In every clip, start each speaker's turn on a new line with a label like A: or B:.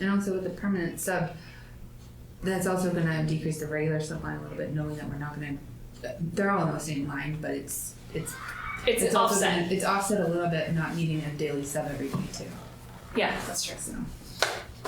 A: And also with the permanent sub, that's also gonna decrease the regular sub line a little bit, knowing that we're not gonna, they're all on the same line, but it's, it's.
B: It's,
A: also
B: offset.
A: gonna- It's offset a little bit, not needing a daily sub every week too,
B: yeah, that's true.
A: so.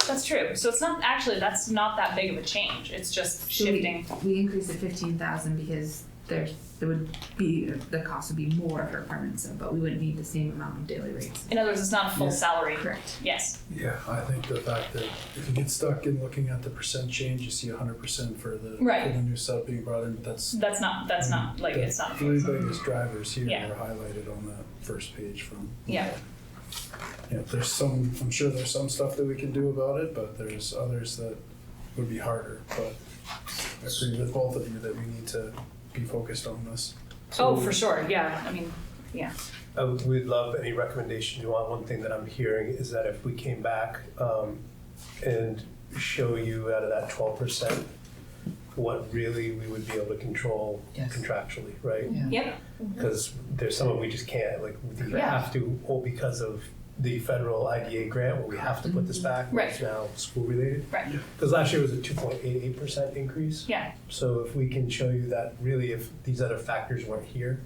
B: That's true. So it's not actually that's not that big of a change. It's just
A: Should we-
B: shifting.
A: We increased it fifteen thousand because there's, there would be, the cost would be more for a permanent sub, but we wouldn't need the same amount of daily rates.
B: In other words, it's not a full
C: Yeah.
B: salary.
A: Correct.
B: Yes.
C: Yeah, I think the fact that if you get stuck in looking at the percent change, you see hundred percent for the
B: Right.
C: for the new sub being brought in, but that's
B: That's not that's not like it's not.
C: the three biggest drivers here
B: Yeah.
C: are highlighted on that first page from.
B: Yeah.
C: Yeah, there's some, I'm sure there's some stuff that we can do about it, but there's others that would be harder, but I agree with both of you that we need to be focused on this.
B: Oh, for sure. Yeah. I mean,
D: Um, we'd love any recommendation you want. One thing that I'm hearing is that if we came back um, and show you out of that 12%, what really we would be able to control
E: Yes.
D: contractually, right?
E: Yeah.
B: yep.
D: Because there's some of we just can't, like, we either
B: Yeah.
D: have to, or because of the federal IDA grant, where we have to put this back, which is
B: Right.
D: now school related.
B: Right. Yeah.
D: Because last year was a 2.88% increase.
B: Yeah.
D: So if we can show you that really, if these other factors weren't here,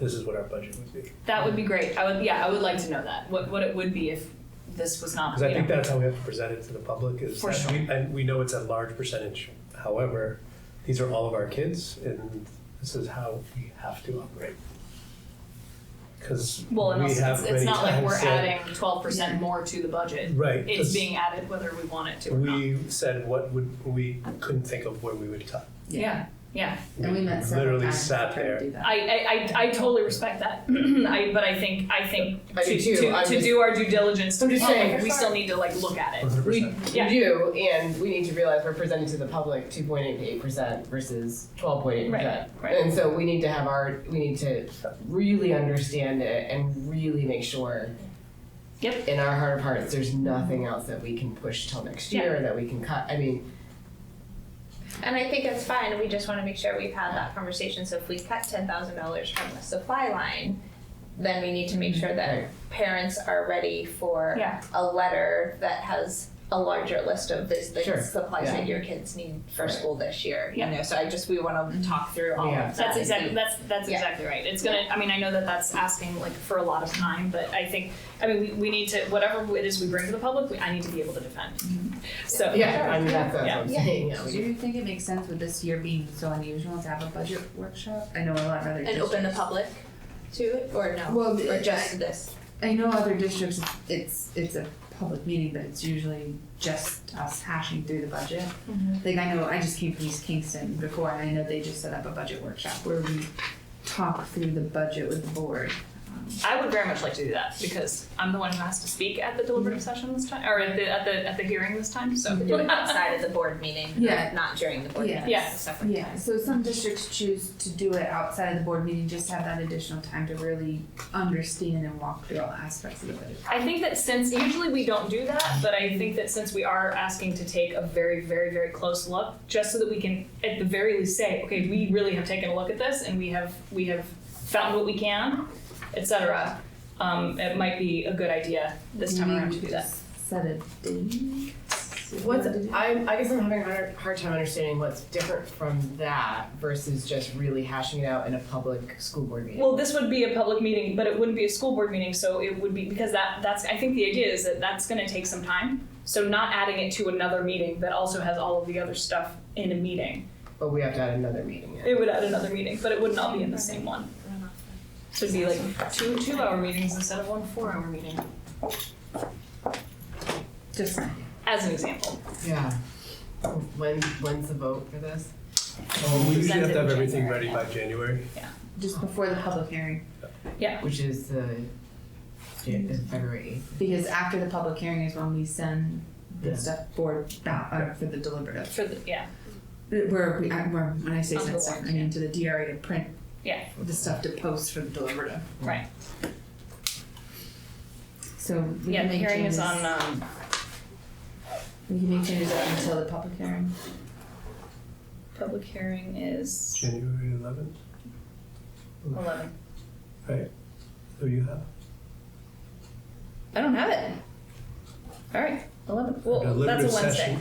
D: this is what our budget would be.
B: That would be great. I would yeah, I would like to know that. What what it would be if this was not
D: Because I
B: you
D: think
B: know.
D: that's how we have to present it to the public is
B: For
D: that
B: sure.
D: we, and we know it's a large percentage. However, these are all of our kids and this is how we have to operate. Because
B: well, and
D: we
B: also
D: have
B: it's, it's
D: many
B: not like
D: times
B: we're
D: said-
B: adding twelve percent more to the budget.
D: Right.
B: It's
D: 'cause
B: being added whether we want it to or not.
D: We said what would, we couldn't think of where we would cut.
B: Yeah. Yeah.
A: And we met several
D: Literally
A: times to
D: sat
A: try to
D: there.
A: do that.
B: I, I, I, I totally respect that. I, but I think I think
E: I
B: to,
E: do too.
B: to,
E: I'm
B: to
E: just-
B: do our due diligence,
E: I'm just
B: we-
E: saying.
B: we still need to like look at it.
D: 100%.
E: We,
B: Yeah.
E: we do, and we need to realize we're presenting to the public two point eight eight percent versus twelve point eight percent.
B: Right, right.
E: And so we need to have our, we need to really understand it and really make sure
B: Yep.
E: in our heart of hearts, there's nothing else that we can push till next
B: Yeah.
E: year that we can cut. I mean,
F: And I think it's fine, we just wanna make sure we've had that conversation, so if we cut ten thousand dollars from the supply line, then we need to make sure that parents are ready for
B: Yeah.
F: a letter that has a larger list of this, the
E: Sure.
F: supplies
E: Yeah.
F: that your kids need for
E: Right. Mm-hmm.
F: school this year, you
B: Yeah.
F: know, so I just, we wanna talk through all
E: Yeah.
F: of that.
B: That's exactly
F: and-
B: that's that's
F: Yeah.
B: exactly right. It's gonna. I mean, I know that that's asking like for a lot of time, but I think I mean we, we need to whatever it is we bring to the public, we, I need to be able to defend. So
E: yeah, I mean, that's, that's what I'm
F: Yeah.
E: saying, yeah, we
A: Do you think it makes sense with this year being so unusual to have a budget workshop? I know a lot of other
F: And open the
A: districts.
F: public to it, or no,
A: Well,
F: or
A: the-
F: just this?
A: I know other districts, it's, it's a public meeting, but it's usually just us hashing through the budget. Like I know, I just came from East Kingston before, and I know they just set up a budget workshop where we talk through the budget with the board.
B: I would very much like to do that because I'm the one who has to speak at the deliberative session this time, or at the at the at the hearing this time. So
F: Do it outside of the board meeting,
A: Yeah.
F: not during the board
A: Yeah.
F: meeting,
B: Yeah.
F: it's a separate
A: Yeah, so some districts choose to do it outside of the board meeting, just to have that additional time to really understand and walk through all aspects of the budget.
B: I think that since usually we don't do that, but I think that since we are asking to take a very, very, very close look, just so that we can at the very least say, okay, we really have taken a look at this and we have we have found what we can, etc. Um, it might be a good idea this time
A: Maybe
B: around
A: we
B: to do
A: could
B: that.
A: Set a date.
E: What's I'm, I guess I'm having a hard, hard time understanding what's different from that versus just really hashing it out in a public school board meeting.
B: Well, this would be a public meeting, but it wouldn't be a school board meeting, so it would be because that that's I think the idea is that that's going to take some time. So not adding it to another meeting that also has all of the other stuff in a meeting.
E: but we have to add another meeting. in.
B: It would add another meeting, but it would not be in the same one. So it'd be like two two hour meetings instead of one four hour meeting,
A: Just,
B: as an example.
E: Yeah. When when's the vote for this?
D: Oh, We usually have to have
B: Presented in
D: everything
B: January.
D: ready by January.
A: just before the public hearing,
E: Which is the Jan- is February eighth.
A: because after the public hearing is when we send the
E: Yeah.
A: stuff board ba- uh, for the deliberative.
B: For the yeah.
A: Where we, I- where, when I say
B: On the
A: send stuff, I
B: warrant,
A: mean to the DRA to print.
B: Yeah.
A: The stuff to post for the deliberative.
B: Right.
A: So we
B: yeah,
A: can
B: the
A: make
B: hearing is
A: changes,
B: on um
A: we can make changes up until the public hearing.
B: public hearing is
D: January 11th,
B: eleven.
D: who you have?
F: I don't have it.
B: All right, eleven, well,
D: deliberative
B: that's a Wednesday.
D: session.